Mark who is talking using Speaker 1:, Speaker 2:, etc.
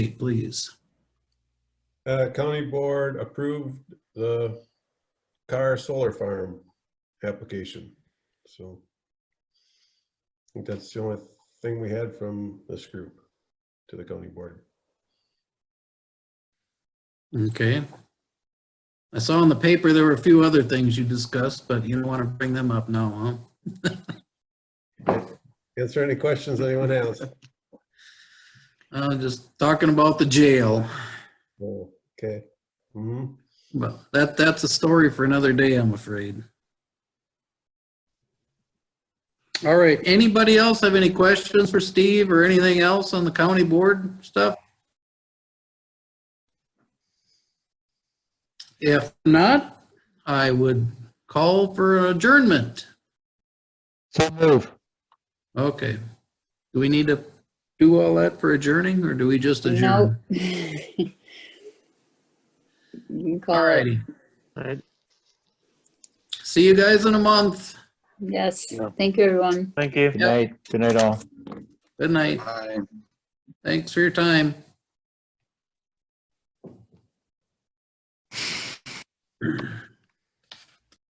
Speaker 1: please.
Speaker 2: Uh, County Board approved the Carr Solar Farm application, so. I think that's the only thing we had from this group to the county board.
Speaker 1: Okay. I saw in the paper there were a few other things you discussed, but you don't want to bring them up now, huh?
Speaker 2: Answer any questions anyone has?
Speaker 1: Uh, just talking about the jail,
Speaker 2: No. Okay. Mhm.
Speaker 1: but that, that's a story for another day, I'm afraid. All right, anybody else have any questions for Steve or anything else on the county board stuff? If not, I would call for adjournment.
Speaker 3: So move.
Speaker 1: Okay. Do we need to do all that for adjourning or do we just
Speaker 4: No.
Speaker 1: adjourn?
Speaker 4: You can
Speaker 1: All
Speaker 4: call it.
Speaker 1: righty.
Speaker 3: All right.
Speaker 1: See you guys in a month.
Speaker 4: Yes,
Speaker 3: Yeah.
Speaker 4: thank you, everyone.
Speaker 5: Thank you.
Speaker 3: Good night. Good night, all.
Speaker 1: Good night. Thanks for your time.